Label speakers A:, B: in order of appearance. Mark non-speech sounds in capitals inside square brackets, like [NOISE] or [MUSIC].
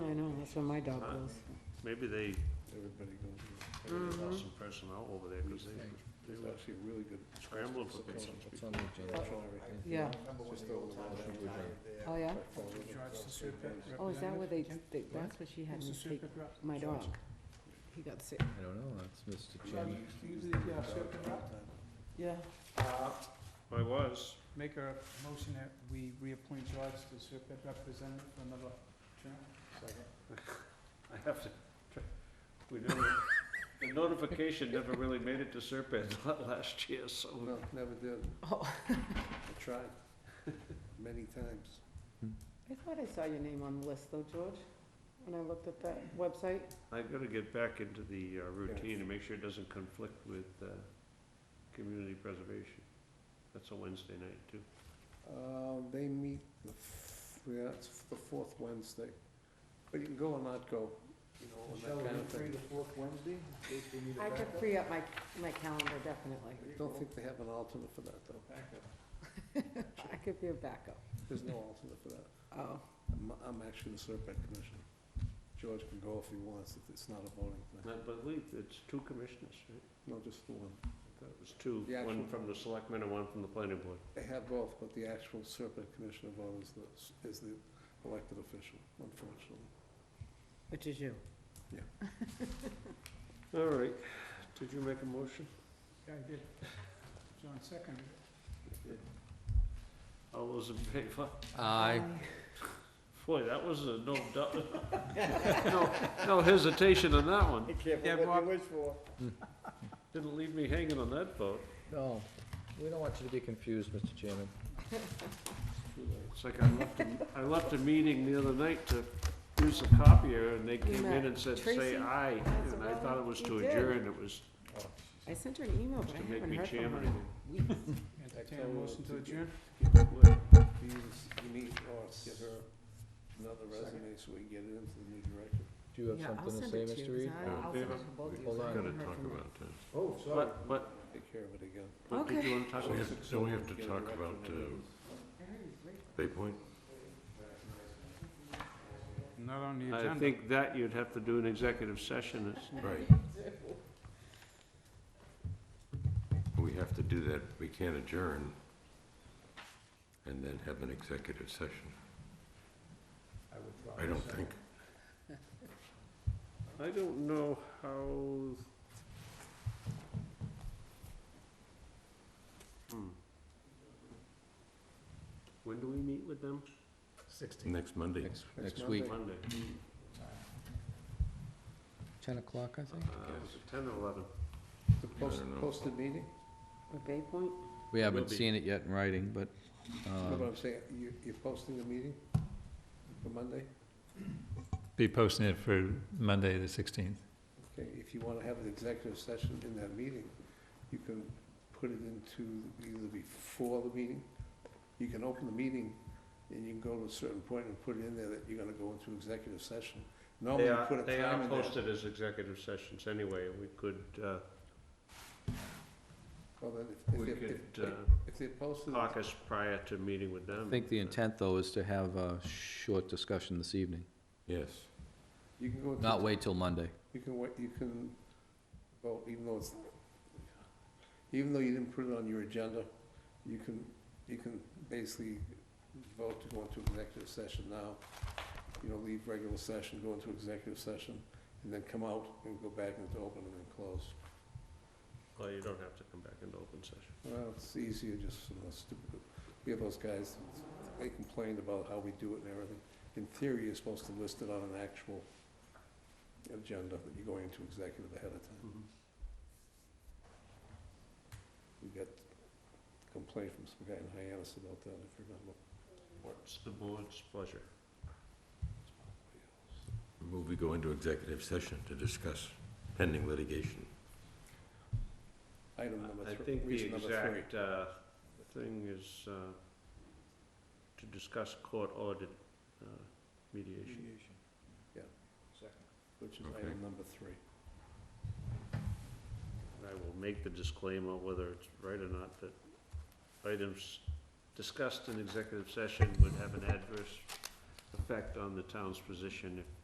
A: That's where my dog
B: Fine.
A: goes.
B: Maybe they,
C: Everybody goes,
B: maybe they
A: Mhm.
B: lost some personnel over there because they
C: there's actually a really good.
B: scrambling for people.
D: It's on the agenda.
A: Yeah.
C: Just over the wall, she would, uh,
A: Oh, yeah?
C: George, the super-
A: Oh, is that where they, they- that's where she had me take my dog? He got sick.
D: I don't know, that's Mr. Chairman.
C: uh,
E: Yeah.
B: I was, [LAUGHS]
E: Make a motion that we reappoint George to serve as representative for another term.
B: I have to, try- we never, the notification never really made it to Serpent [LAUGHS] last year, so.
C: No, never did.
A: Oh. [LAUGHS]
C: I tried [LAUGHS] many times.
A: I thought I saw your name on the list though, George, when I looked at that website.
B: I gotta get back into the uh, routine and make sure it doesn't conflict with, uh, community preservation. That's a Wednesday night too.
C: Uh, They meet the, f- yeah, it's the fourth Wednesday, but you can go or not go, you know, and that kind of thing.
E: fourth Wednesday, in case we need
A: I could free up my, my calendar definitely.
C: I don't think they have an alternate for that, though.
A: I could be a backup.
C: There's no alternate for that.
A: Oh,
C: I'm, I'm actually the Serpent Commissioner. George can go if he wants, if it's not a voting
B: I
C: thing.
B: believe it's two commissioners, right?
C: No, just the one.
B: That was two,
C: The
B: one
C: actual-
B: from the selectmen and one from the planning board.
C: They have both, but the actual Serpent Commissioner vote is the, is the elected official, unfortunately.
A: which is you.
B: All right, did you make a motion?
E: Yeah, I did. John seconded.
B: All those in favor?
D: Aye.
B: Boy, that was a no, dou- [LAUGHS] no, no hesitation on that one.
E: Yeah, Bob,
B: Didn't leave me hanging on that vote.
D: No, we don't want you to be confused, Mr. Chairman.
B: It's like I left, a- I left a meeting the other night to use the copier and they came in and said, say
A: Tracy
B: aye.
A: has
B: And I
A: one.
B: thought it was
A: You
B: to
A: did.
B: adjourn, it was
D: Oh,
A: I sent her an email, but
B: to
A: I
B: make
A: haven't
B: me
A: heard from
B: chairman
A: her.
B: again.
E: entertain a motion to adjourn.
C: Do you, you need,
D: Oh,
C: or get her another resume so we can get it into the new director?
D: Do you have
A: Yeah, I'll
D: something
A: send
D: to say,
A: it to you,
D: Mr.
A: 'cause
D: Reed?
A: I-
B: Yeah.
A: I'll send it to both of you. 'cause
D: Hold
A: I
D: on.
A: haven't heard from her.
C: Oh,
B: But, but,
C: Take care of it again.
B: but did
A: Okay.
B: you want to talk about?
C: So we have to talk about, uh,
E: Not on the
B: I
E: agenda.
B: think that you'd have to do an executive session. It's-
F: Right. We have to do that, we can't adjourn and then have an executive session, I don't think.
B: I don't know how. Hmm. When do we meet with them?
F: Next Monday,
D: Next,
C: Next
D: next week,
C: Monday.
B: Monday.
D: ten o'clock, I
B: Uh,
D: think?
B: is it ten or eleven?
C: The
F: I
C: post,
F: don't know.
C: posted meeting?
A: With Bay Point?
D: We
B: Will
D: haven't
B: be.
D: seen it yet in writing, but,
C: No, but
D: um,
C: I'm saying, you, you're posting the meeting for Monday?
G: Be posting it for Monday, the 16th.
C: Okay, if you wanna have an executive session in that meeting, you can put it into either before the meeting, you can open the meeting, and you can go to a certain point and put it in there that you're gonna go into executive session. Normally,
B: They
C: you
B: are,
C: put a
B: they are
C: time in there.
B: posted as executive sessions anyway, we could, uh,
C: Well, then, if- if
B: we
C: they're-
B: could
C: if-
B: uh,
C: If they're posted,
B: caucus prior to meeting with them. Uh,
D: I think the intent, though, is to have a short discussion this evening,
F: yes.
C: you can go into.
D: not wait till Monday.
C: You can wait, you can vote, even though it's, even though you didn't put it on your agenda, you can, you can basically vote to go into executive session now. You know, leave regular session, go into executive session, and then come out and go back into open and then close.
B: Well, you don't have to come back into open session.
C: Well, it's easier just for those stupid, we have those guys, they complained about how we do it and everything. In theory, you're supposed to list it on an actual agenda, but you're going into executive ahead of time. We got a complaint from some guy in Hyannis about that, if you remember.
B: What's the board's pleasure?
F: Move we go into executive session to discuss pending litigation.
C: Item number
B: I
C: three.
B: think the
C: reason number three.
B: exact, uh, thing is, uh, to discuss court-ordered, uh, mediation.
C: Yeah. Which is
F: Okay.
C: item number three.
B: And I will make the disclaimer, whether it's right or not, that items discussed in executive session would have an adverse effect on the town's position if